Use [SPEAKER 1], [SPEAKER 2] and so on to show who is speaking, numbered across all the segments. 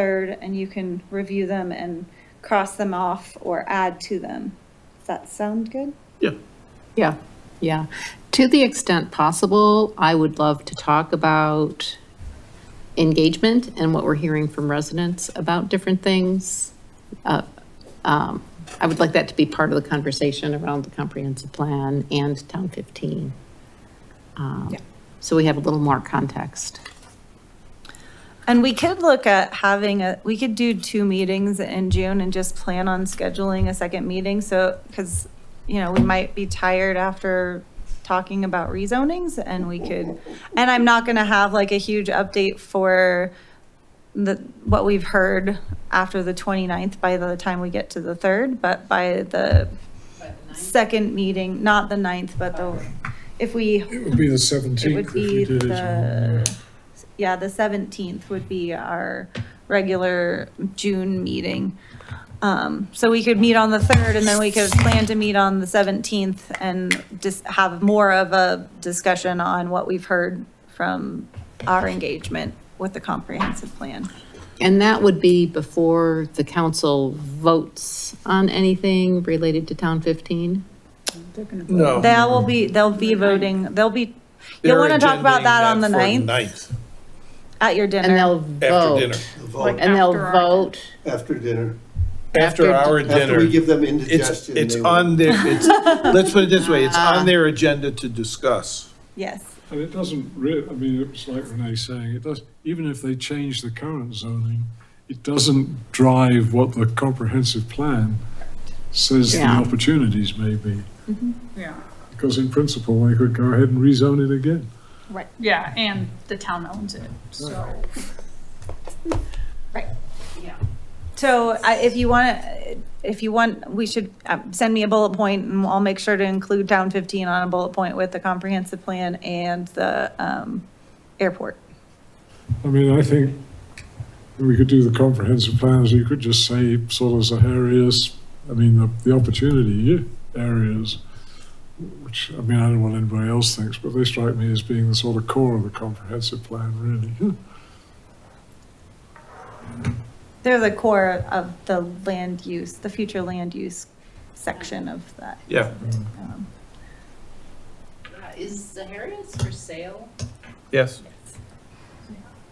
[SPEAKER 1] third, and you can review them and cross them off or add to them. Does that sound good?
[SPEAKER 2] Yeah,
[SPEAKER 3] Yeah, yeah. To the extent possible, I would love to talk about engagement and what we're hearing from residents about different things. Uh, um, I would like that to be part of the conversation around the comprehensive plan and Town 15. Um, So we have a little more context.
[SPEAKER 1] And we could look at having a, we could do two meetings in June and just plan on scheduling a second meeting, so, because, you know, we might be tired after talking about rezonings, and we could, and I'm not gonna have like a huge update for the, what we've heard after the 29th by the time we get to the third, but by the second meeting, not the ninth, but the, if we
[SPEAKER 4] It would be the
[SPEAKER 1] it would
[SPEAKER 4] seventeenth if
[SPEAKER 1] be
[SPEAKER 4] you did it.
[SPEAKER 1] the, yeah, the seventeenth would be our regular June meeting. Um, so we could meet on the third and then we could plan to meet on the seventeenth and just have more of a discussion on what we've heard from our engagement with the comprehensive plan.
[SPEAKER 3] And that would be before the council votes on anything related to Town 15?
[SPEAKER 4] No.
[SPEAKER 1] They will be, they'll be voting, they'll be, you'll want to talk about that on the ninth
[SPEAKER 2] Ninth,
[SPEAKER 1] at your
[SPEAKER 3] And
[SPEAKER 1] dinner.
[SPEAKER 3] they'll vote.
[SPEAKER 2] after dinner.
[SPEAKER 3] And they'll vote.
[SPEAKER 5] After dinner.
[SPEAKER 2] After
[SPEAKER 3] After
[SPEAKER 2] our
[SPEAKER 5] After
[SPEAKER 2] dinner.
[SPEAKER 5] we give them
[SPEAKER 2] It's,
[SPEAKER 5] indigestion.
[SPEAKER 2] it's
[SPEAKER 5] they will-
[SPEAKER 2] on their, it's, let's put it this way, it's
[SPEAKER 1] Ah.
[SPEAKER 2] on their agenda to discuss.
[SPEAKER 1] Yes.
[SPEAKER 4] And it doesn't re, I mean, it's like Renee's saying, it does, even if they change the current zoning, it doesn't drive what the comprehensive plan says the
[SPEAKER 3] Yeah.
[SPEAKER 4] opportunities may be.
[SPEAKER 6] Yeah,
[SPEAKER 4] Because in principle, they could go ahead and rezone it again.
[SPEAKER 6] yeah, and the town owns it, so.
[SPEAKER 1] So I- if you want, if you want, we should um, send me a bullet point and I'll make sure to include Town 15 on a bullet point with the comprehensive plan and the um, airport.
[SPEAKER 4] I mean, I think we could do the comprehensive plans, you could just say sort of the areas, I mean, the, the opportunity areas, which, I mean, I don't know what anybody else thinks, but they strike me as being the sort of core of the comprehensive plan, really.
[SPEAKER 1] They're the core of the land use, the future land use section of that.
[SPEAKER 2] Yeah,
[SPEAKER 1] um,
[SPEAKER 7] Uh, Is Zaharia's for sale?
[SPEAKER 2] yes.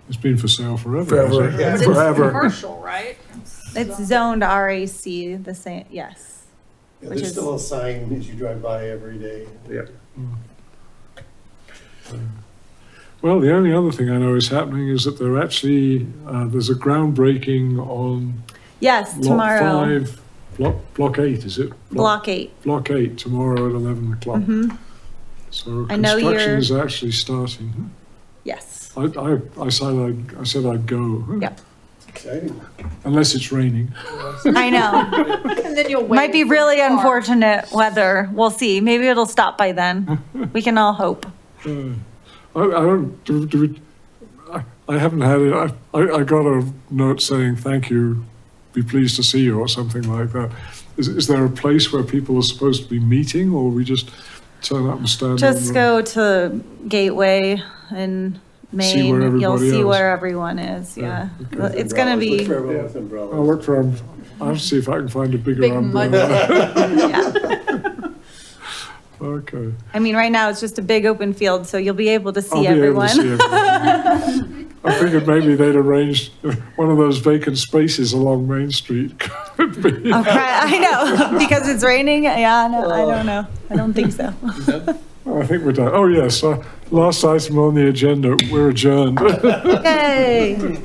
[SPEAKER 4] It's been for sale forever. hasn't it?
[SPEAKER 5] yeah.
[SPEAKER 7] It's
[SPEAKER 4] Forever.
[SPEAKER 7] commercial, right?
[SPEAKER 1] It's zoned RAC, the same, yes.
[SPEAKER 5] Yeah,
[SPEAKER 1] which
[SPEAKER 5] There's
[SPEAKER 1] is-
[SPEAKER 5] still a sign as you drive by every day.
[SPEAKER 2] Yeah.
[SPEAKER 4] Well, the only other thing I know is happening is that they're actually, uh, there's a groundbreaking on
[SPEAKER 1] Yes,
[SPEAKER 4] block
[SPEAKER 1] tomorrow,
[SPEAKER 4] five, block, block eight, is it?
[SPEAKER 1] block eight.
[SPEAKER 4] Block eight tomorrow at 11 o'clock. So
[SPEAKER 1] I know
[SPEAKER 4] construction
[SPEAKER 1] you're-
[SPEAKER 4] is actually starting.
[SPEAKER 1] Yes,
[SPEAKER 4] I, I, I said I'd, I said I'd go.
[SPEAKER 7] Hmm.
[SPEAKER 1] Yeah.
[SPEAKER 5] Exciting.
[SPEAKER 4] Unless it's raining.
[SPEAKER 1] I know.
[SPEAKER 7] And then you'll wait.
[SPEAKER 1] Might be
[SPEAKER 7] for the
[SPEAKER 1] really
[SPEAKER 7] car.
[SPEAKER 1] unfortunate weather. We'll see. Maybe it'll stop by then. We can all hope.
[SPEAKER 4] Uh, I, I don't, do, do we, I, I haven't had it. I, I, I got a note saying, thank you, be pleased to see you or something like that. Is, is there a place where people are supposed to be meeting or we just turn up and stand?
[SPEAKER 1] Just
[SPEAKER 4] on
[SPEAKER 1] go to Gateway in
[SPEAKER 4] See where
[SPEAKER 1] Maine, you'll
[SPEAKER 4] everybody
[SPEAKER 1] see
[SPEAKER 4] else-
[SPEAKER 1] where everyone is, yeah. It's gonna
[SPEAKER 5] Umbrellas. Look
[SPEAKER 1] be,
[SPEAKER 5] for everyone with
[SPEAKER 4] The, I'll
[SPEAKER 5] umbrellas.
[SPEAKER 4] look for, I'll see if I can find a bigger
[SPEAKER 7] Big mud.
[SPEAKER 4] umbrella.
[SPEAKER 1] yeah.
[SPEAKER 4] Okay.
[SPEAKER 1] I mean, right now, it's just a big open field, so you'll be able to
[SPEAKER 4] I'll
[SPEAKER 1] see
[SPEAKER 4] be able to see
[SPEAKER 1] everyone.
[SPEAKER 4] everyone. I figured maybe they'd arranged one of those vacant spaces along Main Street. Could be.
[SPEAKER 1] Okay, I know, because it's raining, yeah, I know, I don't know, I don't think so.
[SPEAKER 4] I think we're done. Oh, yes, uh, last item on the agenda, we're adjourned.
[SPEAKER 1] Yay.